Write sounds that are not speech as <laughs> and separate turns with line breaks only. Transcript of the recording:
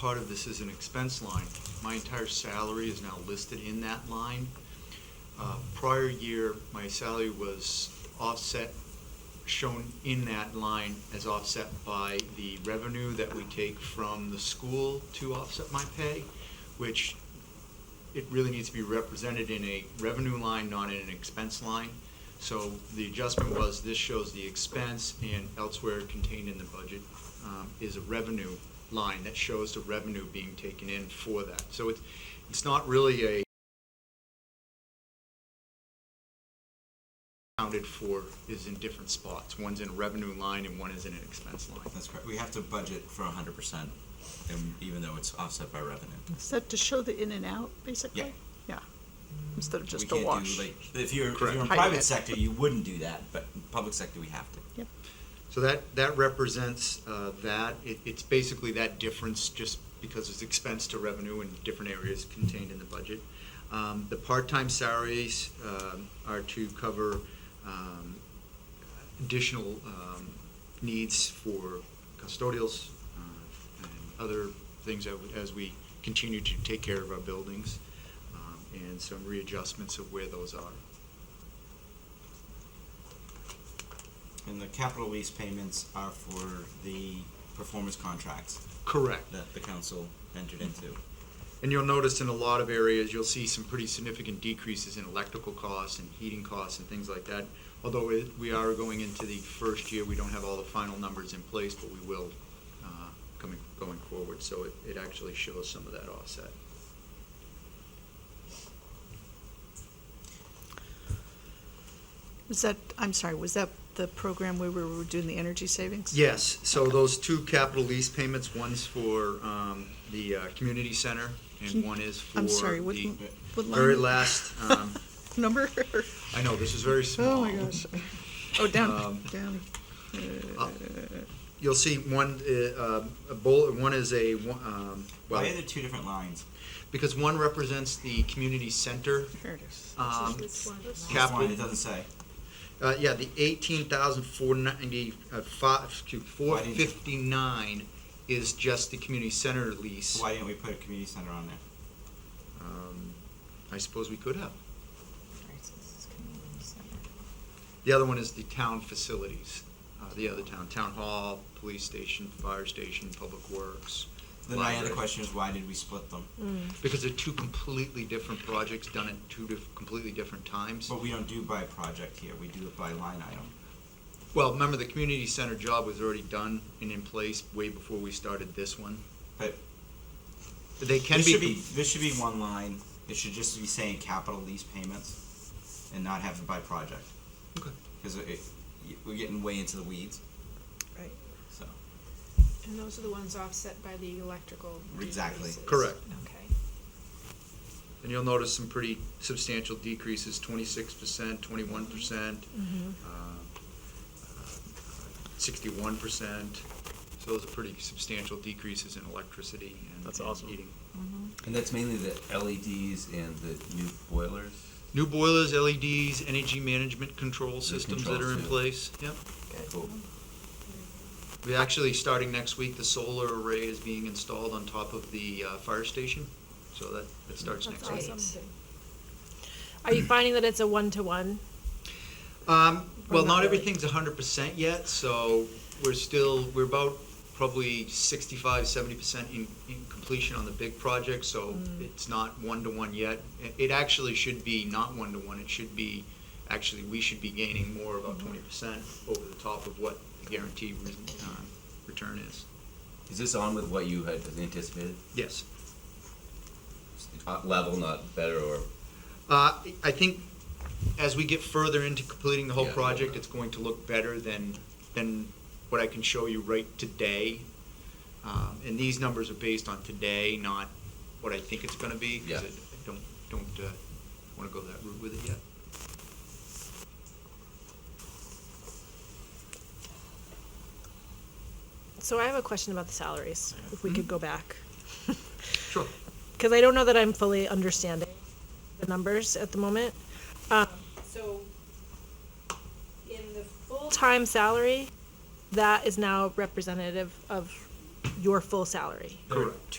part of this is an expense line. My entire salary is now listed in that line. Uh, Prior year, my salary was offset, shown in that line as offset by the revenue that we take from the school to offset my pay, which it really needs to be represented in a revenue line, not in an expense line. So the adjustment was, this shows the expense and elsewhere contained in the budget um, is a revenue line that shows the revenue being taken in for that. So it's, it's not really a accounted for is in different spots. One's in a revenue line and one is in an expense line.
That's correct. We have to budget for hundred percent, and even though it's offset by revenue.
Is that to show the in and out, basically?
Yeah.
Yeah. instead of
We
just a
can't do,
wash.
like, If you're, if you're
Correct.
in
Hide
private
it.
sector, you wouldn't do that, but in public sector, we have to.
Yep,
So that, that represents uh, that. It, it's basically that difference just because it's expense to revenue in different areas contained in the budget. Um, The part-time salaries um, are to cover um, additional um, needs for custodials uh, and other things that we- as we continue to take care of our buildings um, and some readjustments of where those are.
And the capital lease payments are for the performance contracts
Correct.
that the council entered into.
And you'll notice in a lot of areas, you'll see some pretty significant decreases in electrical costs and heating costs and things like that. Although it- we are going into the first year, we don't have all the final numbers in place, but we will uh, coming, going forward. So it, it actually shows some of that offset.
was that, I'm sorry, was that the program where we were doing the energy savings?
Yes, so those two capital lease payments, one's for um, the uh, community center and
Can-
one is for
I'm sorry, what-
the
what
very
line?
last, um,
<laughs> Number?
I know, this is very <laughs> small.
Oh, my gosh. Oh, down,
Um,
down.
Uh, You'll see one, uh, um, a bullet, one is a, one- um, well,
Why are there two different lines?
because one represents the community center.
There it is.
um,
Which line?
Capital-
It doesn't say.
Uh, yeah, the eighteen thousand four ninety, uh, five, to four
Why didn't you-
fifty-nine is just the community center lease.
Why didn't we put a community center on there?
Um, I suppose we could have. The other one is the town facilities, uh, the other town, town hall, police station, fire station, public works.
Then my other
library. Mm.
question is, why did we split them?
Because they're two completely different projects done at two diff- completely different times.
But we don't do by project here, we do it by line item.
Well, remember, the community center job was already done and in place way before we started this one.
But
They can
this
be,
should be this should be one line. It should just be saying capital lease payments, and not have it by project.
Okay.
Because it, y- we're getting way into the weeds.
Right.
So
And those are the ones offset by the electrical.
Exactly.
decreases.
Correct.
Okay.
and you'll notice some pretty substantial decreases, twenty-six percent, twenty-one percent,
Mm-hmm.
uh, sixty-one percent. So those are pretty substantial decreases in electricity and
That's
and
awesome.
heating.
Uh-huh.
And that's mainly the LEDs and the new boilers.
New boilers, LEDs, energy management control systems that are in
controls, yeah.
place, yep.
Cool.
We actually, starting next week, the solar array is being installed on top of the uh, fire station, so that, that starts next
That's
week.
awesome.
Are you finding that it's a one-to-one?
Um, well,
Or
not
not really?
everything's hundred percent yet, so we're still, we're about probably sixty-five, seventy percent in, in completion on the big project, so it's not one-to-one yet. It, it actually should be not one-to-one, it should be, actually, we should be gaining more, about twenty percent over the top of what the guaranteed, re- uh, return is.
Is this on with what you had anticipated?
Yes.
Uh, Level, not better or?
Uh, I think as we get further into completing the whole
Yeah.
project, it's going to look better than, than what I can show you right today. Um, And these numbers are based on today, not what I think it's gonna be. 'cause
Yeah.
I I don't, don't uh, wanna go that route with it yet.
So I have a question about the salaries, if we
Mm-hmm.
could go back.
Sure.
Because I don't know that I'm fully understanding the numbers at the moment. Um, So in the full-time salary, that is now representative of your full salary.
there are
Correct.